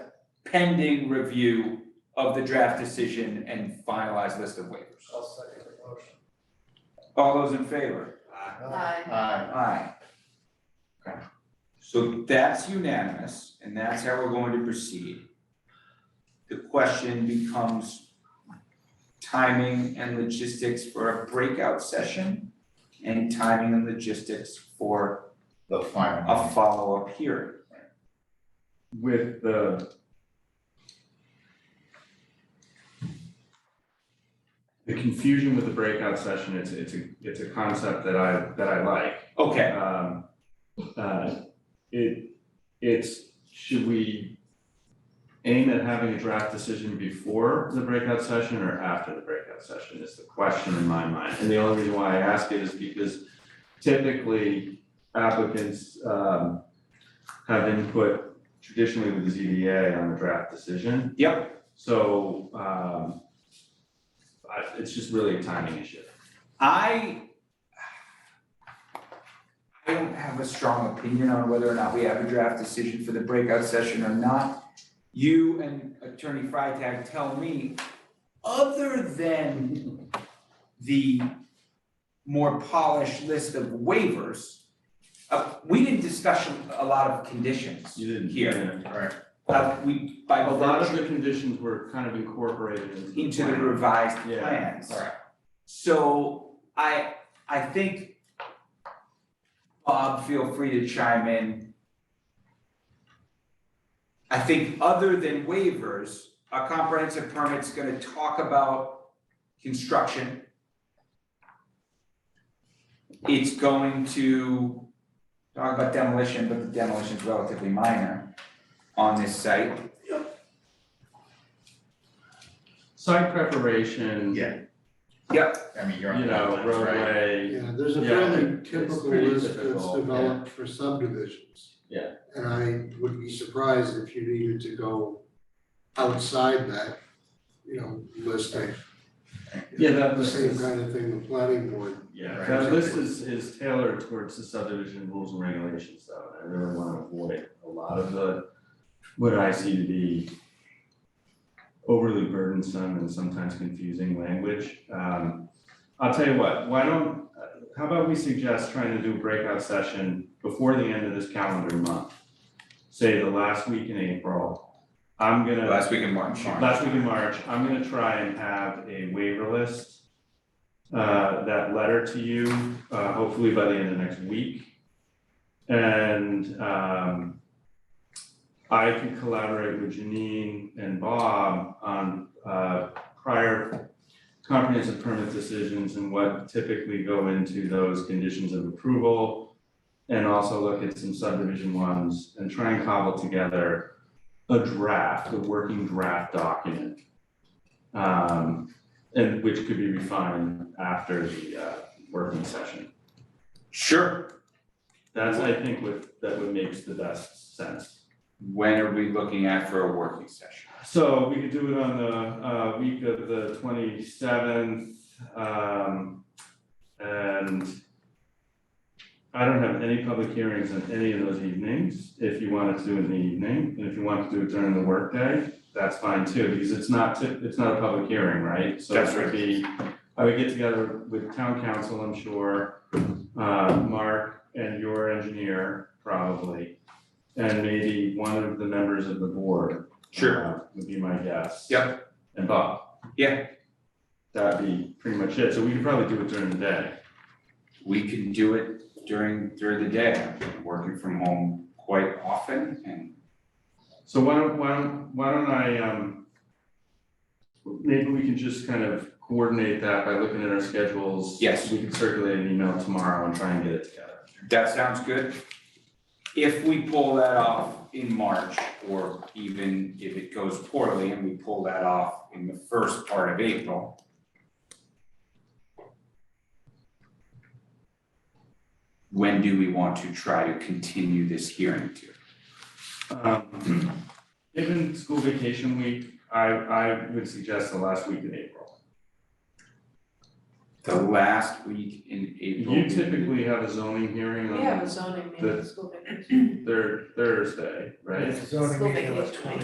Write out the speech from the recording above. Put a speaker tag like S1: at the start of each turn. S1: pending review of the draft decision and finalized list of waivers.
S2: I'll second the motion.
S1: All those in favor?
S3: Aye.
S1: Aye. Okay. So that's unanimous, and that's how we're going to proceed. The question becomes timing and logistics for a breakout session and timing and logistics for
S4: The final.
S1: a follow-up hearing.
S4: With the. The confusion with the breakout session, it's, it's a, it's a concept that I, that I like.
S1: Okay,
S4: Um, uh, it, it's, should we aim at having a draft decision before the breakout session or after the breakout session is the question in my mind. And the only reason why I ask it is because typically applicants, um, have input traditionally with the ZBA on the draft decision. Yep. So, um, I, it's just really a timing issue.
S1: I I don't have a strong opinion on whether or not we have a draft decision for the breakout session or not. You and Attorney Freitag tell me, other than the more polished list of waivers, uh, we didn't discuss a lot of conditions.
S4: You didn't.
S1: Here.
S4: Right.
S1: Uh, we, by
S4: A lot of
S1: virtue
S4: the conditions were kind of incorporated into the
S1: into the
S4: plan.
S1: revised
S4: Yeah,
S1: plans.
S4: alright.
S1: So I, I think, Bob, feel free to chime in. I think other than waivers, a comprehensive permit's gonna talk about construction. It's going to talk about demolition, but the demolition's relatively minor on this site.
S4: Site preparation.
S5: Yeah. I mean, you're on
S4: You
S5: the
S4: know,
S5: wetlands, right?
S4: roadway,
S2: Yeah, there's a
S4: Yeah,
S2: fairly
S4: it's
S2: typical
S4: pretty
S2: list that's
S4: typical,
S2: developed for subdivisions.
S4: Yeah.
S2: And I would be surprised if you needed to go outside that, you know, listing.
S4: yeah, that
S2: The
S4: list
S2: same
S4: is,
S2: kind of thing the planning board,
S4: yeah,
S5: Right.
S4: that list is is tailored towards the subdivision rules and regulations, though, and I really wanna avoid a lot of the. What I see to be overly burdensome and sometimes confusing language, um. I'll tell you what, why don't, uh, how about we suggest trying to do a breakout session before the end of this calendar month? Say the last week in April, I'm gonna.
S1: Last week in March.
S4: Last week in March, I'm gonna try and have a waiver list. Uh, that letter to you, uh, hopefully by the end of next week. And, um. I can collaborate with Janine and Bob on, uh, prior comprehensive permit decisions and what typically go into those conditions of approval. And also look at some subdivision ones and try and cobble together a draft, a working draft document. Um, and which could be refined after the uh working session.
S1: Sure.
S4: That's, I think, what that would makes the best sense.
S1: When are we looking at for a working session?
S4: So we could do it on the uh week of the twenty seventh, um, and I don't have any public hearings on any of those evenings, if you wanted to do it in the evening, and if you wanted to do it during the workday, that's fine too, because it's not ti- it's not a public hearing, right? So
S1: That's
S4: it would
S1: right.
S4: be, I would get together with town council, I'm sure, uh, Mark and your engineer, probably, and maybe one of the members of the board, uh, Would be my guess.
S1: Yep.
S4: And Bob.
S1: Yeah.
S4: That'd be pretty much it, so we could probably do it during the day.
S1: We can do it during, during the day. I've been working from home quite often and
S4: So why don't, why don't, why don't I, um, maybe we can just kind of coordinate that by looking at our schedules.
S1: Yes.
S4: We can circulate an email tomorrow and try and get it together.
S1: that sounds good. If we pull that off in March, or even if it goes poorly and we pull that off in the first part of April, when do we want to try to continue this hearing to?
S4: Um, Given school vacation week, I, I would suggest the last week in April.
S1: The last week in April.
S4: You typically have a zoning hearing
S3: We have
S4: on
S3: a zoning
S4: The-
S3: meeting, school vacation.
S4: thir- Thursday, right?
S2: it's only
S3: School
S2: meeting on the
S3: vacation.
S2: 20th.